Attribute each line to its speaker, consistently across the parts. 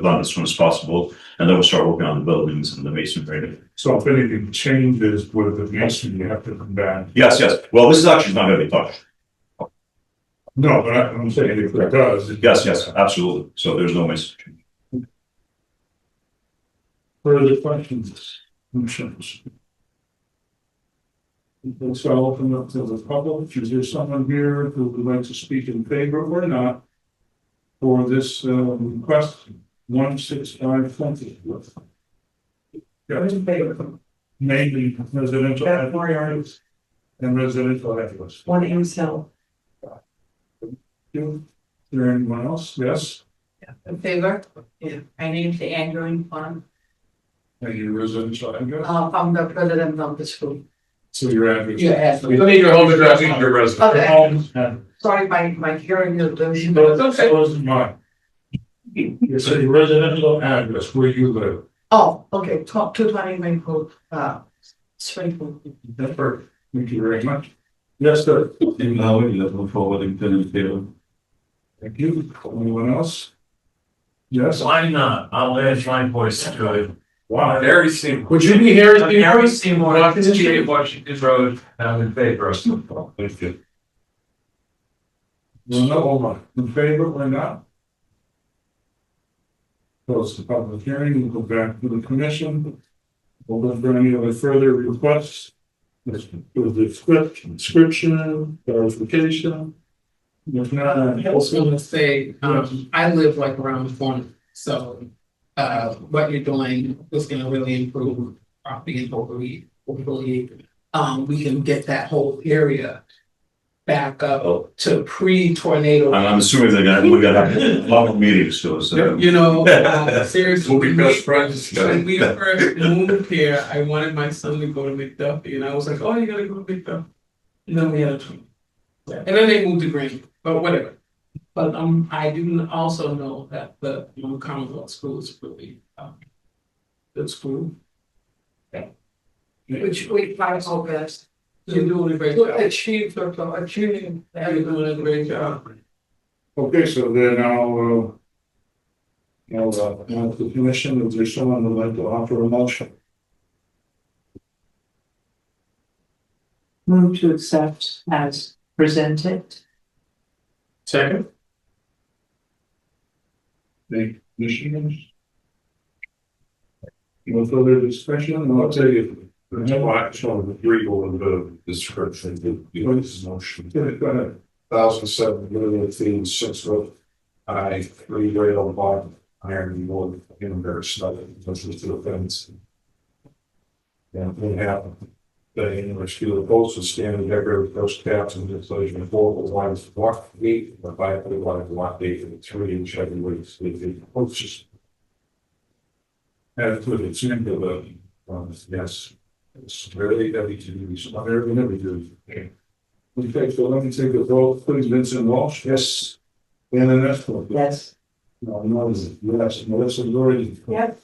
Speaker 1: about as soon as possible, and then we'll start working on the buildings and the masonry.
Speaker 2: So if anything changes with the nation, you have to come back.
Speaker 1: Yes, yes, well, this is actually not gonna be touched,
Speaker 2: No, but I- I'm saying if it does. it-
Speaker 1: yes, yes, absolutely, so there's no masonry.
Speaker 2: Further questions, concerns? So I'll open up to the public. Is there someone here who would like to speak in favor or not? For this uh, request, one six five twenty. Mainly residential.
Speaker 3: Beth
Speaker 2: address And residential address.
Speaker 3: One Ames Hill.
Speaker 2: You, is there anyone else? Yes?
Speaker 3: In favor? Yeah. My name's Andrew Infant,
Speaker 2: And your residential address?
Speaker 3: uh, from the president of the school.
Speaker 2: So your address.
Speaker 3: Your address.
Speaker 2: I need your home address and your residence.
Speaker 3: Okay.
Speaker 2: Home and-
Speaker 3: Sorry, my, my hearing is losing.
Speaker 2: No, it's okay. Close mine. It's a residential address where you live.
Speaker 3: Oh, okay, top two twenty Maple, uh, Springfield.
Speaker 2: Never. Thank you very much. Yes, sir.
Speaker 4: In Maui, level four, Wellington and Taylor.
Speaker 2: Thank you. Anyone else? Yes.
Speaker 5: Why not? I'll add my voice to it.
Speaker 2: Wow.
Speaker 5: Harry Seymour.
Speaker 2: Would you be here?
Speaker 5: Harry Seymour, Washington, Washington Road, I'm in favor of it.
Speaker 2: Thank you. No, hold on. In favor or not? Close the public hearing. We'll go back to the commission. We'll look for any other further requests. This was the script, description, clarification. If not, uh,
Speaker 6: I was gonna say, um, I live like around the corner, so, uh, what you're doing is gonna really improve property in Oakley, Oakley. Um, we can get that whole area back up to pre-tornado.
Speaker 1: I'm, I'm assuming they're gonna, we're gonna have a lot of meetings, so, it's, uh,
Speaker 6: You know, uh, seriously.
Speaker 2: friends.
Speaker 6: When we first moved here, I wanted my son to go to McDuffie, and I was like, oh, you gotta go to McDuffie. And then we had a twin. And then they moved to Green, but whatever. But um, I do also know that the, you know, Commonwealth School is really, um, good school.
Speaker 3: Which we find our best
Speaker 6: You're doing a great
Speaker 3: to
Speaker 6: job.
Speaker 3: achieve, the- to achieving. that.
Speaker 6: You're doing a great job.
Speaker 2: Okay, so then I'll, uh, I'll, uh, ask the commission, if there's someone who'd like to offer a motion.
Speaker 7: Move to accept as presented.
Speaker 6: Second.
Speaker 2: The commissioners? No further discussion, I'll tell you. No, I shall agree with the description, the, this motion. Go ahead. Thousand seven, million feet, six foot. I, three rail bottom, iron wood, in their study, which was the fence. And we have the English field posted standing there, first caps and displacement four, the lines block eight, the five, the line block eight, and three Oh, inch heavy weights, the the posts. As to the singular, um, yes, it's very heavy to use, not very heavy to use. Okay, so let me take a vote, please, Vincent Walsh, yes, and an escort.
Speaker 7: Yes.
Speaker 2: No, no, yes, Melissa Lurie,
Speaker 3: Yes.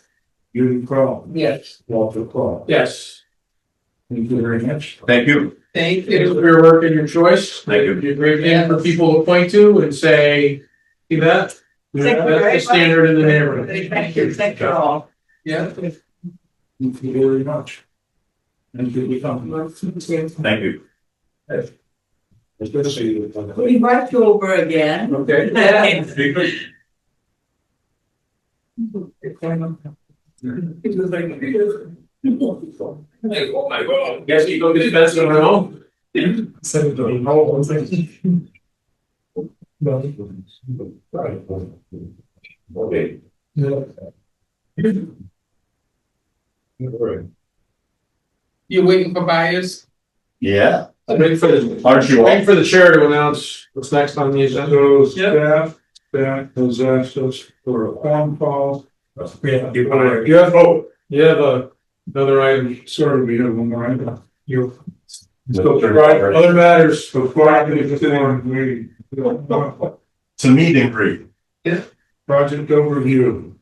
Speaker 2: Judy Crowe,
Speaker 6: Yes.
Speaker 2: Walter Crowe.
Speaker 6: Yes.
Speaker 2: Thank you very much.
Speaker 1: thank you,
Speaker 6: Thank
Speaker 5: It is
Speaker 6: you.
Speaker 5: for your work and your choice.
Speaker 1: Thank you.
Speaker 5: You're a great man for people to point to and say, see that?
Speaker 3: Thank you very
Speaker 5: That's the
Speaker 3: much.
Speaker 5: standard in the neighborhood.
Speaker 3: Thank you, thank you all.
Speaker 6: Yeah.
Speaker 2: Thank you very much. And did we come?
Speaker 1: thank you.
Speaker 2: Especially with.
Speaker 3: We invite you over again.
Speaker 5: Okay.
Speaker 6: It was like,
Speaker 5: Like, oh my God, guess you go get the best of it all.
Speaker 2: Okay.
Speaker 6: you're waiting for buyers?
Speaker 1: Yeah.
Speaker 5: Wait for the,
Speaker 1: Aren't you all?
Speaker 5: wait for the chair to announce what's next on the agenda.
Speaker 2: So staff, staff has asked us for a phone call.
Speaker 5: You wanna- you have, oh, you have a, another item.
Speaker 2: Sorry, we have one more item.
Speaker 5: You.
Speaker 2: So the right, other matters before I can inform we.
Speaker 1: It's a meet and greet.
Speaker 2: Project overview.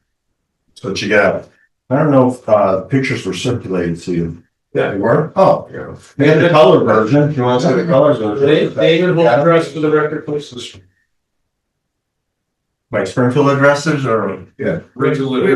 Speaker 8: So what you got, I don't know if, uh, pictures were circulated to you.
Speaker 5: Yeah.
Speaker 8: They were? Oh, yeah. They had the color version, if you want to see the colors version.
Speaker 5: David will address for the record, please.
Speaker 9: like Springfield addresses or?
Speaker 8: Yeah. Regular.